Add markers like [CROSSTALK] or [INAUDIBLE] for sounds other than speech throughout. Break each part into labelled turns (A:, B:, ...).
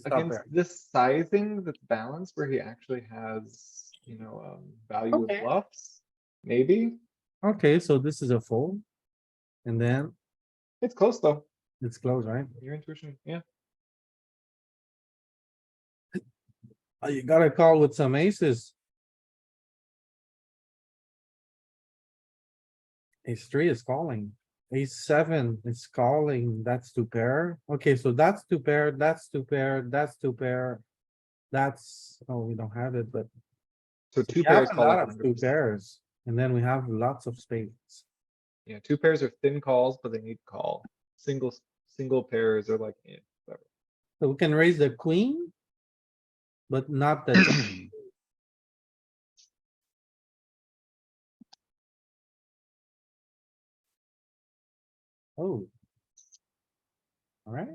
A: stop
B: against
A: there.
B: this sizing that's balanced where he actually has, you know, um, value with
C: Okay.
B: bluffs. Maybe,
A: Okay, so this is a fold. And then
B: it's close though,
A: it's close, right?
B: your intuition, yeah,
A: Uh, You gotta call with some aces. Ace three is calling, ace seven is calling, that's two pair. Okay, so that's two pair, that's two pair, that's two pair. That's, oh, we don't have it, but
B: so
A: we
B: two
A: have
B: pairs.
A: a
B: call
A: lot
B: like
A: of two
B: 100%.
A: pairs. And then we have lots of spades.
B: Yeah, two pairs are thin calls, but they need call, single, single pairs are like, eh,
A: So we can raise the queen. But not the,
D: [CLEARS THROAT]
A: jack. oh. Alright.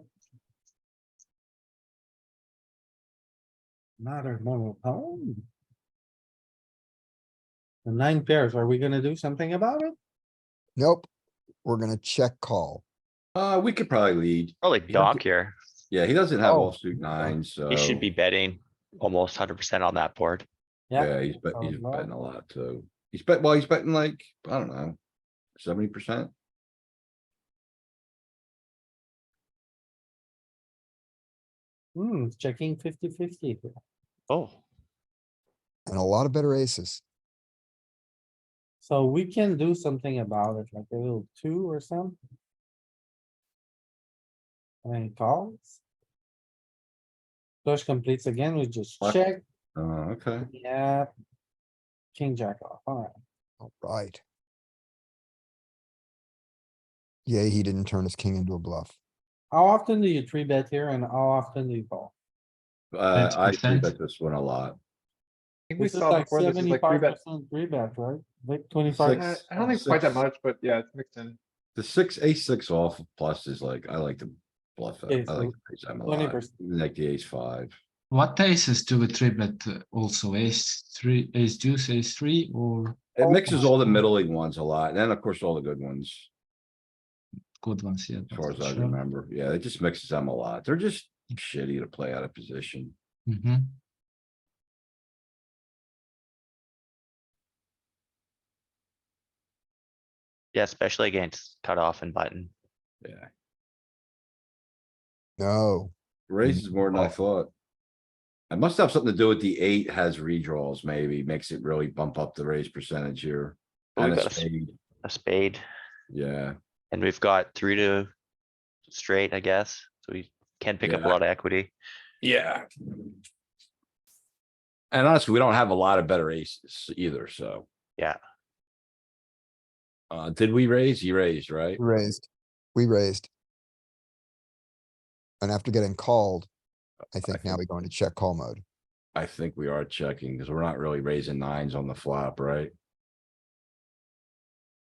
A: Another monotone. The nine pairs, are we gonna do something about it?
E: Nope, we're gonna check call.
D: Uh, we could probably lead.
F: Probably
D: You don't
F: donk here.
D: Yeah, he doesn't have
E: Oh,
D: offsuit nines, so.
F: He should be betting almost hundred percent on that board.
D: Yeah, he's bet, he's
A: sounds low.
D: betting a lot, so. He's bet, well, he's betting like, I don't know, seventy percent.
A: Hmm, it's checking 50-50. here.
F: Oh,
E: And a lot of better aces.
A: So we can do something about it, like a little two or something. And calls. Flush completes again, we just
D: What?
A: check,
D: Uh, okay.
A: yeah. King jack off, alright,
E: Alright. Yeah, he didn't turn his king into a bluff.
A: how often do you three bet here and how often do you call?
D: Uh, I three
G: 20%.
D: bet this one a lot.
B: I think we
A: This is
B: saw
A: like
B: before, this is like three
A: seventy-five
B: bet.
A: percent three bet, right? Like twenty-five,
B: Uh,
D: Six.
B: I don't think it's quite that
D: Six.
B: much, but yeah, it's mixed in.
D: The six, ace six off plus is like, I like to bluff
A: Okay,
D: it. I like
A: so
D: to raise them a
A: 20%.
D: lot, even like the ace five.
G: What aces do we three bet uh, also? Ace three, ace deuce, ace three, or
D: It
A: Oh,
D: mixes all the middling ones a lot, and then of course all the good ones.
G: good ones? Yeah.
D: As far as I remember, yeah, it just mixes them a lot. They're just shitty to play out of position.
G: hmm
F: yeah, especially against cutoff and button.
D: Yeah,
E: No,
D: raises
F: Mm-hmm.
D: more than I thought. It must have something to do with the eight has redraws, maybe makes it really bump up the raise percentage here.
F: Oh, we
D: And a
F: got a s-
D: spade,
F: A spade,
D: yeah,
F: and we've got three to straight, I guess, so we can pick up a
D: Yeah.
F: lot of equity. [LAUGHS]
D: yeah. And honestly, we don't have a lot of better aces either, so.
F: Yeah.
D: Uh, did we raise? You raised, right?
E: raised. We raised. And after getting called, I think now we go into check call mode.
D: I think we are checking because we're not really raising nines on the flop, right?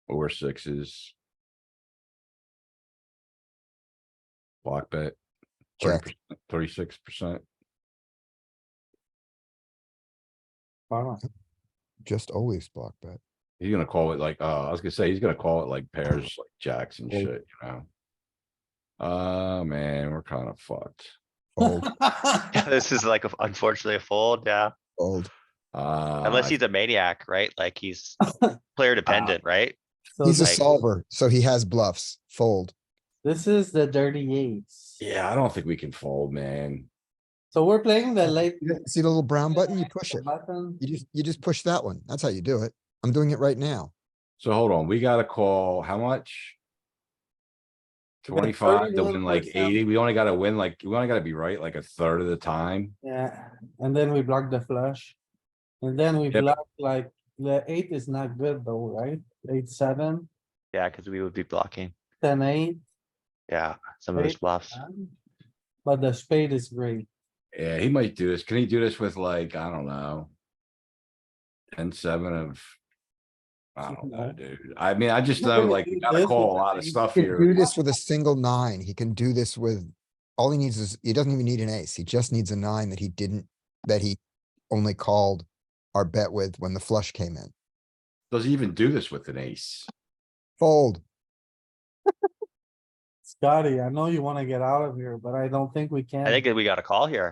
D: Or sixes. Block bet.
E: Check.
D: Thirty-six percent.
A: bottom,
E: Just always block bet.
D: He's gonna call it like, uh, I was gonna say, he's gonna call it like pairs, like jacks and
E: Oh.
D: shit, you know? Uh, man, we're kind of fucked.
E: Old,
F: This is like a- unfortunately a fold, yeah,
E: old.
D: Uh.
F: unless he's a maniac, right?
D: [LAUGHS]
F: Like he's
D: Ah.
F: player dependent, right?
A: [LAUGHS] so
E: He's a
F: like-
A: th-
E: solver, so he has bluffs. Fold.
A: this is the dirty eights.
D: Yeah, I don't think we can fold, man.
A: So we're playing the late.
E: You don't See the little brown button? You push
A: the [LAUGHS]
E: it.
A: Button,
E: You just, you just push that one. That's how you do it. I'm doing it right now.
D: So hold on, we gotta call, how much?
A: We got
D: Twenty-five to win like
A: 31%.
D: eighty, we only gotta win like, we only gotta be right like a third of the time.
A: yeah, and then we block the flush. And then we
D: Yeah, but-
A: block like, the eight is not good though, right? Eight, seven,
F: Yeah, cuz we would be blocking,
A: ten, eight.
F: yeah, some of his
A: Right.
D: Ah,
F: bluffs.
A: um, But the spade is great.
D: Yeah, he might do this, can he do this with like, I don't know? Ten, seven of. I don't know, dude, I mean, I just
A: He's not
D: know
A: gonna
D: like,
A: do
D: we gotta
A: this
D: call
A: with
D: a lot of
A: nine.
D: stuff
E: He can do
D: here,
E: this with a single nine. He can do this with, all he needs is, he doesn't even need an ace. He just needs a nine that he didn't, that he only called our bet with when the flush came in.
D: does he even do this with an ace?
E: Fold.
A: Scotty, I know you wanna get out of here, but I don't think we can.
F: I think that we got a call here.